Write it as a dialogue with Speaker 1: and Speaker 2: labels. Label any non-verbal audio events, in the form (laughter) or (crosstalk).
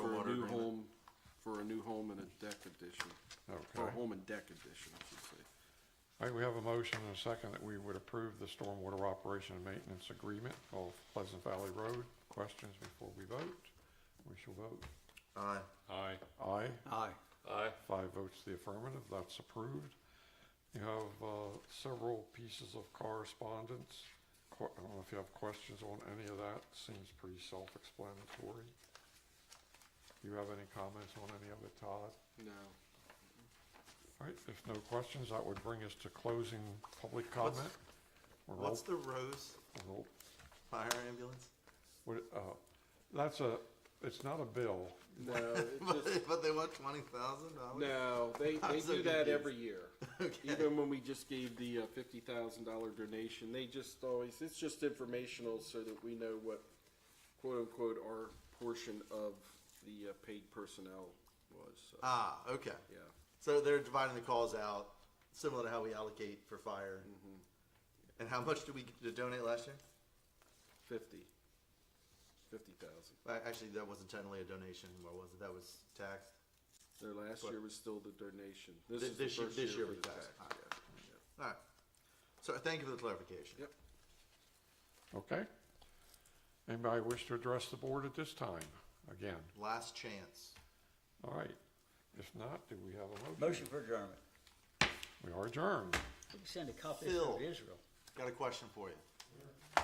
Speaker 1: home and deck edition, I should say.
Speaker 2: All right, we have a motion and a second that we would approve the stormwater operation and maintenance agreement of Pleasant Valley Road. Questions before we vote? We shall vote.
Speaker 3: Aye.
Speaker 4: Aye.
Speaker 2: Aye,
Speaker 5: Aye.
Speaker 4: Aye.
Speaker 2: five votes to the affirmative, that's approved. You have uh, several pieces of correspondence. Qu- I don't know if you have questions on any of that, seems pretty self-explanatory. You have any comments on any of it, Todd?
Speaker 1: No.
Speaker 2: All right, if no questions, that would bring us to closing public comment. We're roll-
Speaker 3: What's the Rose
Speaker 2: roll-
Speaker 3: fire ambulance?
Speaker 2: What, uh, that's a, it's not a bill.
Speaker 1: No,
Speaker 3: But,
Speaker 1: it Oh, just,
Speaker 3: (laughs) but they want twenty thousand dollars.
Speaker 1: (laughs) no, (laughs) they,
Speaker 3: I'm
Speaker 1: they
Speaker 3: so
Speaker 1: do that
Speaker 3: confused.
Speaker 1: every year.
Speaker 3: (laughs) Okay.
Speaker 1: Even when we just gave the uh, fifty thousand dollar donation, they just always, it's just informational so that we know what quote unquote our portion of the uh, paid personnel was, so,
Speaker 3: Ah, okay.
Speaker 1: yeah.
Speaker 3: So they're dividing the calls out, similar to how we allocate for fire.
Speaker 1: Mm-hmm.
Speaker 3: And how much did we get to donate last year?
Speaker 1: Fifty. Fifty thousand.
Speaker 3: Well, Actually, that wasn't technically a donation anymore, was it? That was taxed.
Speaker 1: Their last year was still the donation. This
Speaker 3: Thi-
Speaker 1: is the
Speaker 3: this year-
Speaker 1: first
Speaker 3: this
Speaker 1: year
Speaker 3: year
Speaker 1: for
Speaker 3: was
Speaker 1: the
Speaker 3: tax.
Speaker 1: tax. yeah, yeah.
Speaker 3: All right. So thank you for the clarification.
Speaker 1: Yep.
Speaker 2: Okay? Anybody wish to address the board at this time? Again,
Speaker 3: Last chance.
Speaker 2: all right. If not, do we have a
Speaker 5: Motion
Speaker 2: motion?
Speaker 5: for adjournment.
Speaker 2: We are adjourned.
Speaker 5: We can send a copy of it
Speaker 3: Phil.
Speaker 5: to Israel.
Speaker 3: Got a question for you.